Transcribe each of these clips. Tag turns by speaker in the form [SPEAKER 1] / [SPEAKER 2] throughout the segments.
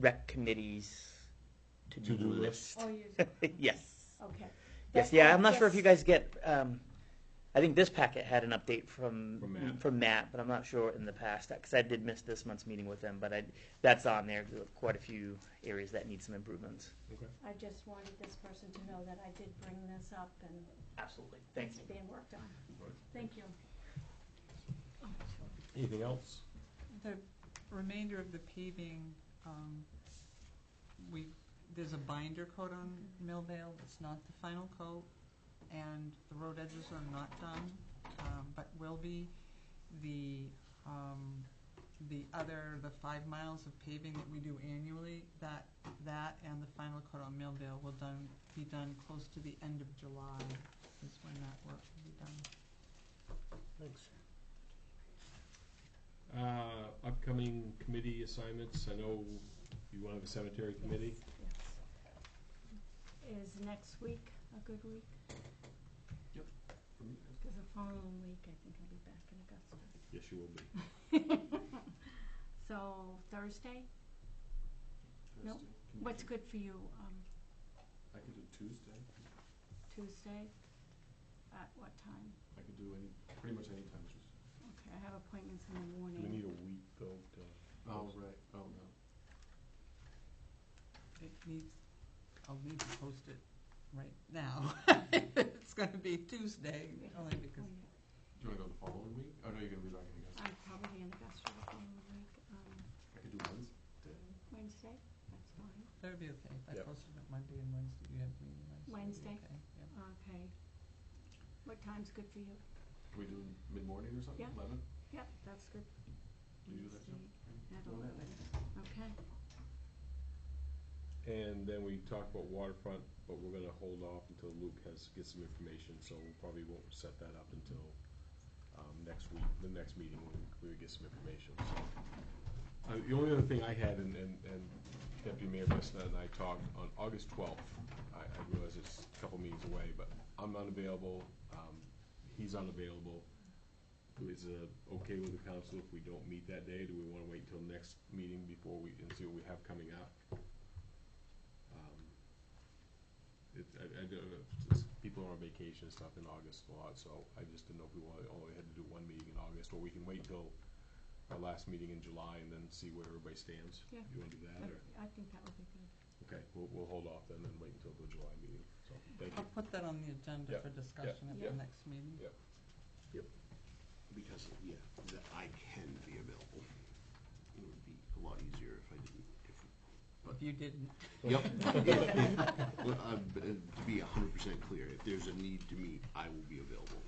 [SPEAKER 1] rec committee's to-do
[SPEAKER 2] To-do
[SPEAKER 1] list.
[SPEAKER 2] list.
[SPEAKER 3] Oh, you do.
[SPEAKER 1] Yes.
[SPEAKER 3] Okay.
[SPEAKER 1] Yes,
[SPEAKER 3] That-
[SPEAKER 1] yeah,
[SPEAKER 3] I
[SPEAKER 1] I'm not sure if you
[SPEAKER 3] guess-
[SPEAKER 1] guys get, um, I think this packet had an update
[SPEAKER 2] From
[SPEAKER 1] from,
[SPEAKER 2] Matt.
[SPEAKER 1] from Matt, but I'm not sure in the past, because I did miss this month's meeting with them, but I, that's on there, There were quite a few areas that need some improvements.
[SPEAKER 3] I just wanted this person to know that I did bring this up and
[SPEAKER 1] Absolutely, thank
[SPEAKER 3] it's
[SPEAKER 1] you.
[SPEAKER 3] being worked on.
[SPEAKER 2] Right.
[SPEAKER 3] Thank you.
[SPEAKER 2] Anything else?
[SPEAKER 4] The remainder of the paving, um, we, there's a binder coat on Millvale, it's not the final coat, and the road edges are not done, um, but will be. The, um, the other, the five miles of paving that we do annually, that, that and the final coat on Millvale will done, be done close to the end of July, is when that work will be done.
[SPEAKER 2] Thanks. Uh, upcoming committee assignments, I know you want to have a cemetery committee.
[SPEAKER 3] Yes. Is next week a good week?
[SPEAKER 2] Yep.
[SPEAKER 3] Because the following week, I think I'll be back in Augusta.
[SPEAKER 2] Yes, you will be.
[SPEAKER 3] So Thursday,
[SPEAKER 2] Mm-hmm.
[SPEAKER 3] No.
[SPEAKER 5] Thursday. Can you
[SPEAKER 3] what's
[SPEAKER 5] do-
[SPEAKER 3] good for you? Um,
[SPEAKER 5] I could do Tuesday,
[SPEAKER 3] Tuesday, at what time?
[SPEAKER 5] I could do any, pretty much any time Tuesday.
[SPEAKER 3] Okay, I have appointments in the
[SPEAKER 2] Do we
[SPEAKER 3] morning.
[SPEAKER 2] need a week though to?
[SPEAKER 5] Oh, right, oh, no.
[SPEAKER 4] It needs, I'll need to post it right now. It's gonna be Tuesday, only because,
[SPEAKER 3] Oh, yeah.
[SPEAKER 5] Do you wanna go the following week? Oh, no, you're gonna be back in Augusta.
[SPEAKER 3] I'm probably in Augusta the following week, um,
[SPEAKER 5] I could do Wednesday.
[SPEAKER 3] Wednesday, that's fine.
[SPEAKER 4] that would be okay, if I
[SPEAKER 2] Yep.
[SPEAKER 4] posted it Monday and Wednesday, you have meeting
[SPEAKER 3] Wednesday.
[SPEAKER 4] Wednesday. it'd be okay, yep.
[SPEAKER 3] Okay. What time's good for you?
[SPEAKER 5] Can we do mid-morning or something,
[SPEAKER 3] Yeah.
[SPEAKER 5] eleven?
[SPEAKER 3] Yep, that's good.
[SPEAKER 5] Can you do that, Jim?
[SPEAKER 3] Wednesday At
[SPEAKER 5] Go ahead.
[SPEAKER 3] eleven, okay.
[SPEAKER 2] And then we talked about waterfront, but we're gonna hold off until Luke has, gets some information, so we probably won't set that up until, um, next week, the next meeting, when we get some information, so. Uh, the only other thing I had, and, and, and Deputy Mayor Messina and I talked on August twelfth, I, I realize it's a couple meetings away, but I'm unavailable, um, he's unavailable. Is it okay with the council if we don't meet that day, do we wanna wait until next meeting before we, and see what we have coming up? Um, It, I, I don't know, it's- people are on vacation and stuff in August a lot, so I just didn't know if we wanted, only had to do one meeting in August, or we can wait till our last meeting in July and then see where everybody stands.
[SPEAKER 3] Yeah.
[SPEAKER 2] You wanna do that, or,
[SPEAKER 3] I think that would be good.
[SPEAKER 2] okay, we'll, we'll hold off then and wait until the July meeting, so, thank you.
[SPEAKER 4] I'll put that on the agenda
[SPEAKER 2] Yep,
[SPEAKER 4] for discussion at
[SPEAKER 3] yep.
[SPEAKER 4] the next meeting.
[SPEAKER 2] Yep.
[SPEAKER 6] Because, yeah, that I can be available. It would be a lot easier if I didn't,
[SPEAKER 4] If you didn't,
[SPEAKER 6] if. Yep. But, uh, but, uh, To be a hundred percent clear, if there's a need to meet, I will be available.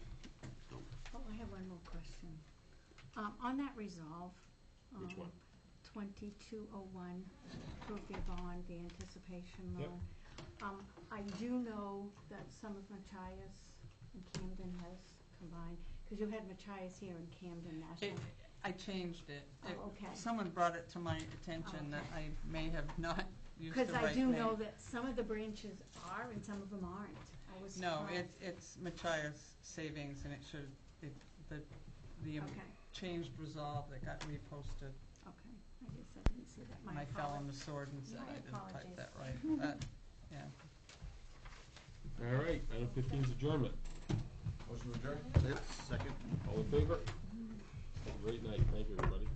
[SPEAKER 6] So,
[SPEAKER 3] Oh, I have one more question. Um, on that resolve.
[SPEAKER 2] Which
[SPEAKER 3] um,
[SPEAKER 2] one?
[SPEAKER 3] Twenty-two oh one, approve the bond, the anticipation
[SPEAKER 2] Yep.
[SPEAKER 3] loan. Um, I do know that some of Machias and Camden has combined, because you had Machias here and Camden National.
[SPEAKER 4] it, I changed it. It-
[SPEAKER 3] Oh, okay. Oh,
[SPEAKER 4] Someone brought it to my attention that I may have not used the
[SPEAKER 3] Because
[SPEAKER 4] right name.
[SPEAKER 3] I do know that some of the branches are and some of them aren't. I was
[SPEAKER 4] No,
[SPEAKER 3] surprised.
[SPEAKER 4] it's, it's Machias Savings, and it should, it, the, the um,
[SPEAKER 3] Okay,
[SPEAKER 4] changed resolve that got reposted.
[SPEAKER 3] okay. I guess I didn't see that.
[SPEAKER 4] And
[SPEAKER 3] My
[SPEAKER 4] I fell on
[SPEAKER 3] apologies.
[SPEAKER 4] the sword and said
[SPEAKER 3] My
[SPEAKER 4] I didn't
[SPEAKER 3] apologies.
[SPEAKER 4] type that right. That, yeah.
[SPEAKER 2] All right, item fifteen is adjournment,
[SPEAKER 5] Motion to adjourn?
[SPEAKER 6] second.
[SPEAKER 2] all in favor? Have a great night, thank you, everybody.